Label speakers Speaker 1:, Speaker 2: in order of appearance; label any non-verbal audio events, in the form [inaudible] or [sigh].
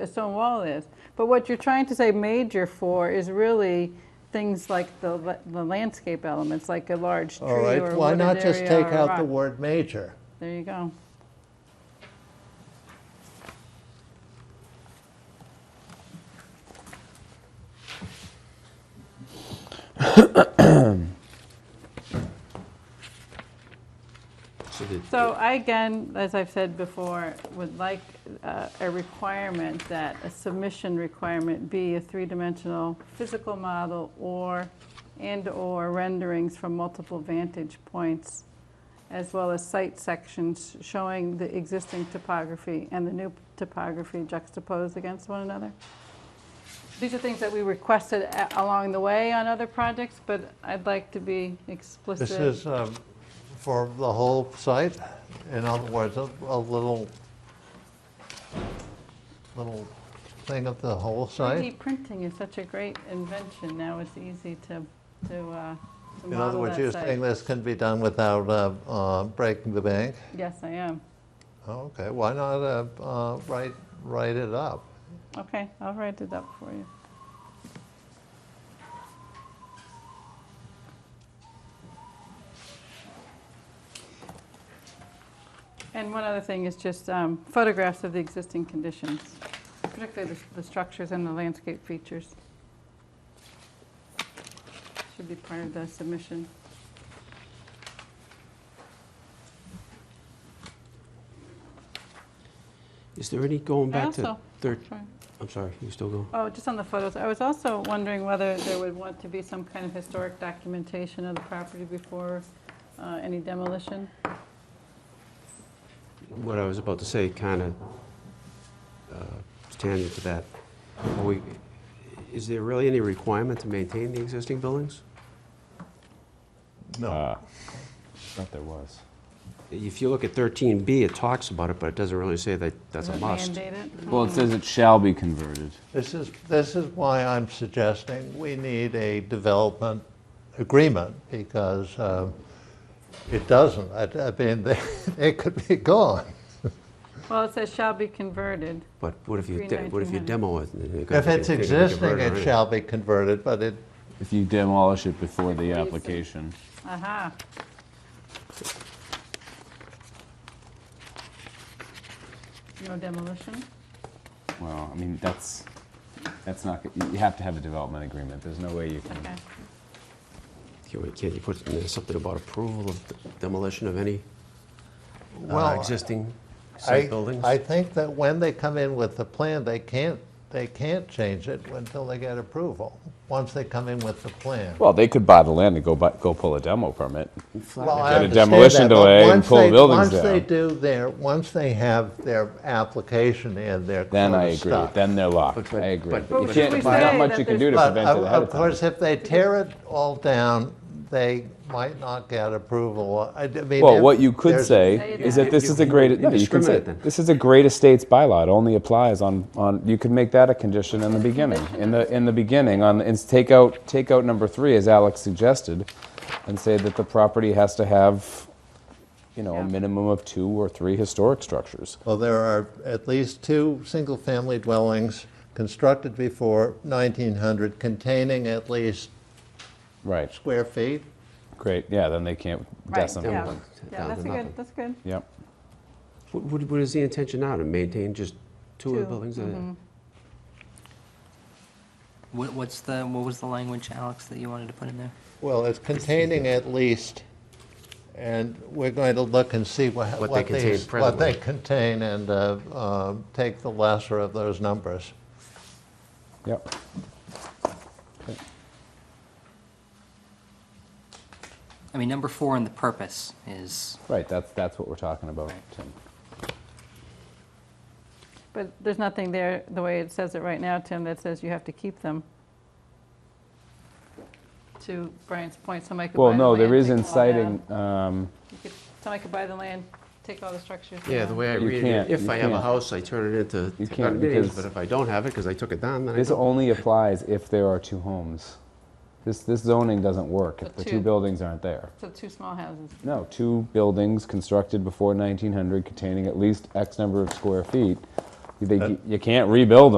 Speaker 1: a stone wall is. But what you're trying to say major for is really things like the la- the landscape elements, like a large tree
Speaker 2: All
Speaker 1: or a wooded
Speaker 2: right,
Speaker 1: area
Speaker 2: why not just take
Speaker 1: or a
Speaker 2: out the
Speaker 1: rock.
Speaker 2: word major?
Speaker 1: There you go.
Speaker 3: So the-
Speaker 1: So I, again, as I've said before, would like uh, a requirement that a submission requirement be a three-dimensional physical model or, and/or renderings from multiple vantage points, as well as site sections showing the existing topography and the new topography juxtaposed against one another. These are things that we requested a- along the way on other projects, but I'd like to be explicit.
Speaker 2: This is um, for the whole site, in other words, a a little, little thing of the whole
Speaker 1: 3D
Speaker 2: site?
Speaker 1: printing is such a great invention, now it's easy to, to, uh, to
Speaker 2: In other
Speaker 1: model
Speaker 2: words, you're
Speaker 1: that
Speaker 2: saying
Speaker 1: site.
Speaker 2: this can be done without uh, uh, breaking the bank?
Speaker 1: Yes, I am.
Speaker 2: Okay, why not uh, uh, write, write it up?
Speaker 1: Okay, I'll write it up for you. And one other thing is just um, photographs of the existing conditions, particularly the- the structures and the landscape features. Should be part of the submission.
Speaker 3: Is there any going
Speaker 1: I
Speaker 3: back to
Speaker 1: also,
Speaker 3: third,
Speaker 1: sorry.
Speaker 3: I'm sorry, you still go?
Speaker 1: Oh, just on the photos, I was also wondering whether there would want to be some kind of historic documentation of the property before uh, any demolition.
Speaker 3: What I was about to say kind of tangent to that. Are we, is there really any requirement to maintain the existing buildings?
Speaker 4: Uh, thought there was.
Speaker 3: If you look at 13B, it talks about it, but it doesn't really say that that's a
Speaker 1: Is it
Speaker 3: must.
Speaker 1: mandated?
Speaker 4: Well, it says it shall be converted.
Speaker 2: This is, this is why I'm suggesting we need a development agreement, because um, it doesn't. I I mean, [laughs] they- it could be gone.
Speaker 1: Well, it says shall be converted.
Speaker 3: But what if you,
Speaker 1: Three
Speaker 3: de- what if you
Speaker 1: 1900.
Speaker 3: demo it? and it
Speaker 2: If
Speaker 3: could-
Speaker 2: it's
Speaker 3: it could be
Speaker 2: existing,
Speaker 3: converted
Speaker 2: it
Speaker 3: already?
Speaker 2: shall be converted, but it,
Speaker 4: If you demolish it before the
Speaker 1: Replace it.
Speaker 4: application.
Speaker 1: Aha. No demolition?
Speaker 4: Well, I mean, that's, that's not, g- you have to have a development agreement. There's no way you
Speaker 1: Okay.
Speaker 4: can.
Speaker 3: Can we- Can't you put in there something about approval of demolition of any uh,
Speaker 2: well,
Speaker 3: existing
Speaker 2: I,
Speaker 3: site buildings?
Speaker 2: I think that when they come in with the plan, they can't, they can't change it until they get approval, once they come in with the plan.
Speaker 4: Well, they could buy the land and go buy, go pull a demo permit.
Speaker 3: Flat
Speaker 2: Well, I
Speaker 4: Get a
Speaker 2: understand
Speaker 4: demolition
Speaker 2: that, but
Speaker 4: delay and
Speaker 2: once
Speaker 4: pull
Speaker 2: they-
Speaker 4: buildings
Speaker 2: Once they
Speaker 4: down.
Speaker 2: do their, once they have their application in, they're
Speaker 4: Then
Speaker 2: sort
Speaker 4: I
Speaker 2: of
Speaker 4: agree.
Speaker 2: stuck.
Speaker 4: Then they're
Speaker 3: But-
Speaker 4: locked.
Speaker 3: but-
Speaker 4: I agree.
Speaker 3: but-
Speaker 4: But you
Speaker 3: but-
Speaker 4: can't, there's
Speaker 1: But-
Speaker 4: not much you can do to
Speaker 2: But
Speaker 4: prevent it
Speaker 2: of
Speaker 4: ahead
Speaker 2: of
Speaker 4: of time.
Speaker 2: course, if they tear it all down, they might not get approval. I I mean,
Speaker 4: Well,
Speaker 2: if
Speaker 4: what you could
Speaker 2: there's-
Speaker 1: Say
Speaker 4: say
Speaker 1: it
Speaker 4: is
Speaker 1: now.
Speaker 4: that this
Speaker 3: You-
Speaker 4: is a great, no, you can say,
Speaker 3: discriminate then.
Speaker 4: this is a great estates bylaw. It only applies on, on, you could make that a condition in the beginning. In the, in the beginning, on, and take out, take out number three, as Alex suggested, and say that the property has to have, you know,
Speaker 1: Yeah.
Speaker 4: a minimum of two or three historic structures.
Speaker 2: Well, there are at least two single-family dwellings constructed before 1900 containing at least
Speaker 4: Right,
Speaker 2: square feet.
Speaker 4: great, yeah, then they can't
Speaker 1: Right,
Speaker 4: decimate.
Speaker 1: yeah.
Speaker 3: Down-
Speaker 1: Yeah,
Speaker 3: down
Speaker 1: that's
Speaker 3: to
Speaker 1: a good,
Speaker 3: nothing.
Speaker 1: that's good.
Speaker 4: Yep,
Speaker 3: What, what what is the intention now, to maintain just two of the
Speaker 1: Two,
Speaker 3: buildings? Uh, that-
Speaker 5: What, what's the, what was the language, Alex, that you wanted to put in there?
Speaker 2: Well, it's containing at least, and we're going to look and see wha-
Speaker 3: What they
Speaker 2: what
Speaker 3: contain
Speaker 2: these, what they
Speaker 3: presently.
Speaker 2: contain and uh, um, take the lesser of those numbers.
Speaker 4: yep.
Speaker 5: I mean, number four in the purpose is,
Speaker 4: Right, that's, that's what we're talking about, Tim.
Speaker 1: But there's nothing there, the way it says it right now, Tim, that says you have to keep them. To Brian's point, somebody could buy the
Speaker 4: Well,
Speaker 1: land.
Speaker 4: no, there is
Speaker 1: take them all down.
Speaker 4: inciting, um,
Speaker 1: You could- Somebody could buy the land, take all the structures down.
Speaker 3: Yeah, the way I
Speaker 4: You
Speaker 3: read
Speaker 4: can't,
Speaker 3: it, if
Speaker 4: you
Speaker 3: I have a
Speaker 4: can't.
Speaker 3: house, I turn it into
Speaker 4: You can't
Speaker 3: condominiums,
Speaker 4: because-
Speaker 3: but if I don't have it, because I took it down, then I
Speaker 4: This
Speaker 3: don't.
Speaker 4: only applies if there are two homes. This, this zoning doesn't work if
Speaker 1: So
Speaker 4: the
Speaker 1: two.
Speaker 4: two buildings aren't there.
Speaker 1: So two small houses.
Speaker 4: No, two buildings constructed before 1900 containing at least X number of square feet, They, you can't rebuild them.